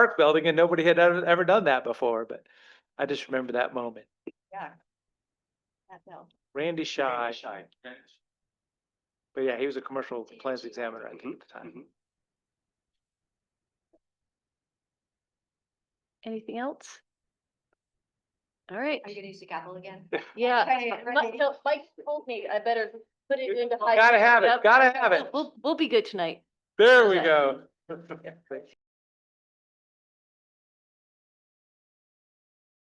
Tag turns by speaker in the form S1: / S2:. S1: park building and nobody had ever, ever done that before, but I just remember that moment.
S2: Yeah. That bill.
S1: Randy Shy,
S3: Shy.
S1: but yeah, he was a commercial plans examiner at the time.
S3: Mhm.
S4: Anything else? All right,
S2: Are you gonna use the gavel again?
S4: yeah.
S2: Okay,
S4: My-
S2: ready?
S4: no, Mike told me I better put it into. high
S1: Gotta have it,
S4: Yep.
S1: gotta have it.
S4: We'll, we'll be good tonight.
S1: There we
S4: Okay.
S1: go.